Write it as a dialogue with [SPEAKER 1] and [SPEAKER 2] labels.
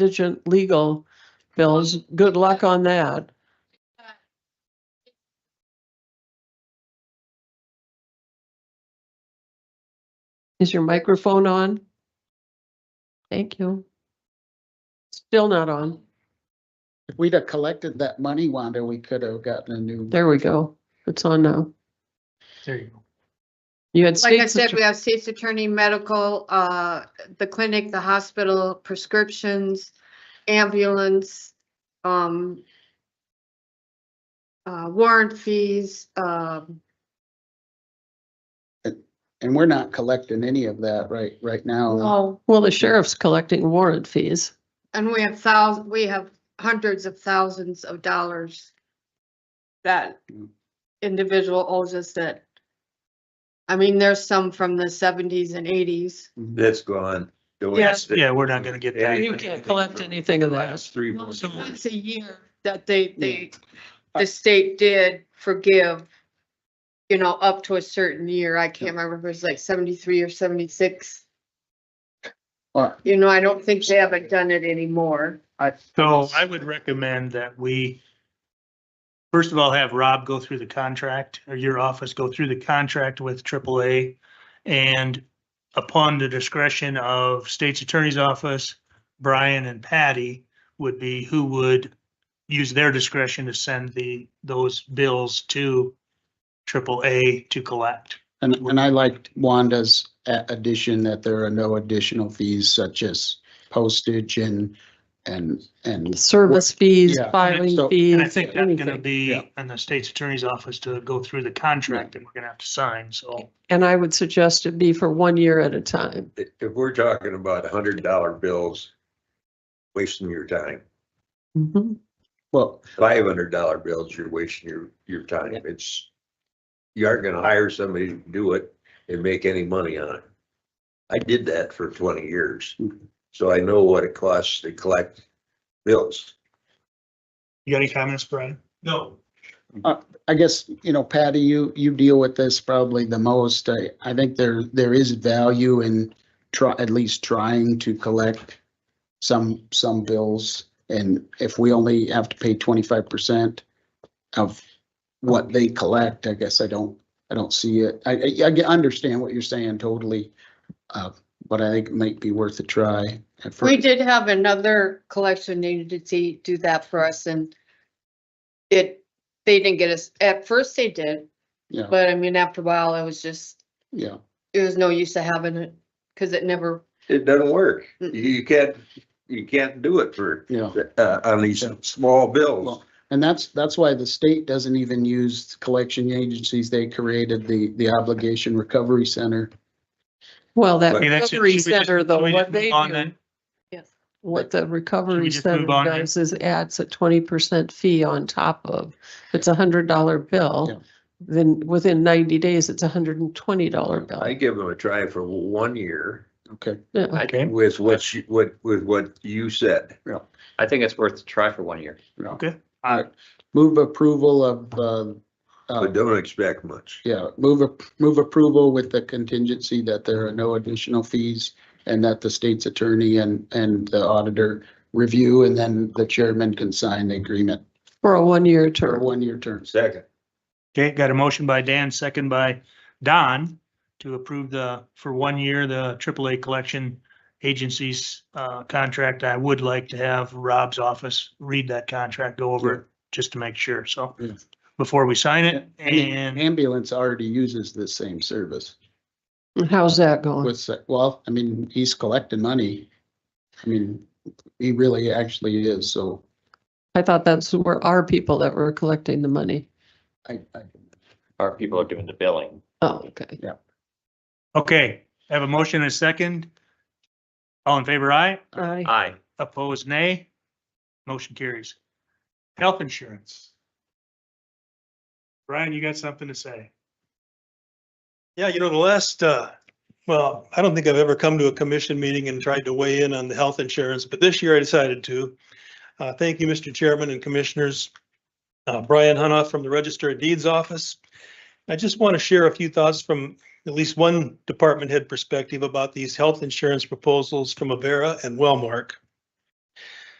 [SPEAKER 1] indigent legal bills. Good luck on that. Is your microphone on? Thank you. Still not on.
[SPEAKER 2] If we'd have collected that money, Wanda, we could have gotten a new.
[SPEAKER 1] There we go. It's on now.
[SPEAKER 3] There you go.
[SPEAKER 1] You had
[SPEAKER 4] Like I
[SPEAKER 1] states
[SPEAKER 4] said, we
[SPEAKER 1] attorney-
[SPEAKER 4] have state's attorney, medical, uh, the clinic, the hospital, prescriptions, ambulance, um, uh, warrant fees, um,
[SPEAKER 2] And we're not collecting any of that right, right now.
[SPEAKER 4] oh,
[SPEAKER 1] well, the sheriff's collecting warrant fees.
[SPEAKER 4] and we have thousands, we have hundreds of thousands of dollars that individual owes us that, I mean, there's some from the seventies and eighties.
[SPEAKER 5] That's gone. The way
[SPEAKER 3] Yes,
[SPEAKER 5] that-
[SPEAKER 3] yeah, we're not gonna get that.
[SPEAKER 1] You can't collect anything of that.
[SPEAKER 5] Last three months.
[SPEAKER 3] So-
[SPEAKER 4] once a year that they, they, the state did forgive, you know, up to a certain year. I can't remember if it was like seventy-three or seventy-six.
[SPEAKER 2] Or
[SPEAKER 4] You know, I don't think they haven't done it anymore.
[SPEAKER 3] So I would recommend that we first of all, have Rob go through the contract or your office go through the contract with AAA. And upon the discretion of state's attorney's office, Brian and Patty would be who would use their discretion to send the, those bills to AAA to collect.
[SPEAKER 2] And, and I liked Wanda's a- addition that there are no additional fees such as postage and, and, and
[SPEAKER 1] Service fees,
[SPEAKER 2] Yeah.
[SPEAKER 1] filing
[SPEAKER 2] So-
[SPEAKER 3] And I
[SPEAKER 1] fees,
[SPEAKER 3] think that's gonna
[SPEAKER 1] anything.
[SPEAKER 2] Yeah.
[SPEAKER 3] be in the state's attorney's office to go through the contract that we're gonna have to sign, so.
[SPEAKER 1] And I would suggest it be for one year at a time.
[SPEAKER 5] If if we're talking about hundred dollar bills, wasting your time.
[SPEAKER 1] Mhm.
[SPEAKER 2] well,
[SPEAKER 5] Five hundred dollar bills, you're wasting your, your time. It's, you aren't gonna hire somebody to do it and make any money on it. I did that for twenty years, so I know what it costs to collect bills.
[SPEAKER 3] You got any comments, Brian?
[SPEAKER 5] No.
[SPEAKER 2] I guess, you know, Patty, you, you deal with this probably the most. I, I think there, there is value in try, at least trying to collect some, some bills. And if we only have to pay twenty-five percent of what they collect, I guess I don't, I don't see it. I, I, I get- understand what you're saying totally. Uh, but I think it might be worth a try. at
[SPEAKER 4] We
[SPEAKER 2] first.
[SPEAKER 4] did have another collection agency do that for us and it, they didn't get us, at first they did,
[SPEAKER 2] Yeah,
[SPEAKER 4] but I mean, after a while, it was just,
[SPEAKER 2] yeah.
[SPEAKER 4] it was no use to having it, cause it never,
[SPEAKER 5] It doesn't work.
[SPEAKER 4] Mm.
[SPEAKER 5] You- You can't, you can't do it for,
[SPEAKER 2] Yeah.
[SPEAKER 5] uh, on these small bills.
[SPEAKER 2] Well, And that's, that's why the state doesn't even use collection agencies. They created the, the obligation recovery center.
[SPEAKER 1] Well, that
[SPEAKER 5] I
[SPEAKER 3] Okay, that's it.
[SPEAKER 1] recovery
[SPEAKER 3] Should we just-
[SPEAKER 1] center, though,
[SPEAKER 3] should we
[SPEAKER 1] what
[SPEAKER 3] just
[SPEAKER 1] they
[SPEAKER 3] move on
[SPEAKER 1] do.
[SPEAKER 3] then?
[SPEAKER 4] yes.
[SPEAKER 1] what the recovery
[SPEAKER 3] just
[SPEAKER 1] center
[SPEAKER 3] move on then?
[SPEAKER 1] does is adds a twenty percent fee on top of, if it's a hundred dollar
[SPEAKER 2] Yeah.
[SPEAKER 1] bill, then within ninety days, it's a hundred and twenty dollar
[SPEAKER 5] I
[SPEAKER 1] bill.
[SPEAKER 5] give them a try for one year
[SPEAKER 2] Okay.
[SPEAKER 1] Yeah.
[SPEAKER 3] Okay,
[SPEAKER 5] with what you, what, with what you said.
[SPEAKER 6] I think it's worth a try for one year.
[SPEAKER 3] okay.
[SPEAKER 2] Move approval of, uh, uh,
[SPEAKER 5] But don't expect much.
[SPEAKER 2] yeah, move, ap- move approval with the contingency that there are no additional fees and that the state's attorney and, and the auditor review and then the chairman can sign the agreement
[SPEAKER 1] For a one-year
[SPEAKER 2] for
[SPEAKER 1] term.
[SPEAKER 2] one-year terms.
[SPEAKER 5] Second.
[SPEAKER 3] Okay, got a motion by Dan, second by Don to approve the, for one year, the AAA collection agencies uh, contract. I would like to have Rob's office read that contract, go over it, just to make sure, so.
[SPEAKER 2] Yeah.
[SPEAKER 3] Before we sign it
[SPEAKER 2] And the
[SPEAKER 3] and
[SPEAKER 2] ambulance already uses the same service.
[SPEAKER 1] How's that going?
[SPEAKER 2] What's that? Well, I mean, he's collecting money. I mean, he really actually is, so
[SPEAKER 1] I thought that's where our people that were collecting the money.
[SPEAKER 2] I, I,
[SPEAKER 6] Our people are doing the billing.
[SPEAKER 1] Oh, okay.
[SPEAKER 3] Okay, I have a motion and a second. All in favor, aye.
[SPEAKER 1] I,
[SPEAKER 6] Aye.
[SPEAKER 3] Opposed, nay. Motion carries. Health insurance. Brian, you got something to say?
[SPEAKER 7] Yeah, you know, the last, uh, well, I don't think I've ever come to a commission meeting and tried to weigh in on the health insurance, but this year I decided to. Uh, thank you, Mr. Chairman and Commissioners. Uh, Brian Hunoff from the Register of Deeds Office. I just want to share a few thoughts from at least one department head perspective about these health insurance proposals from Avera and Wellmark.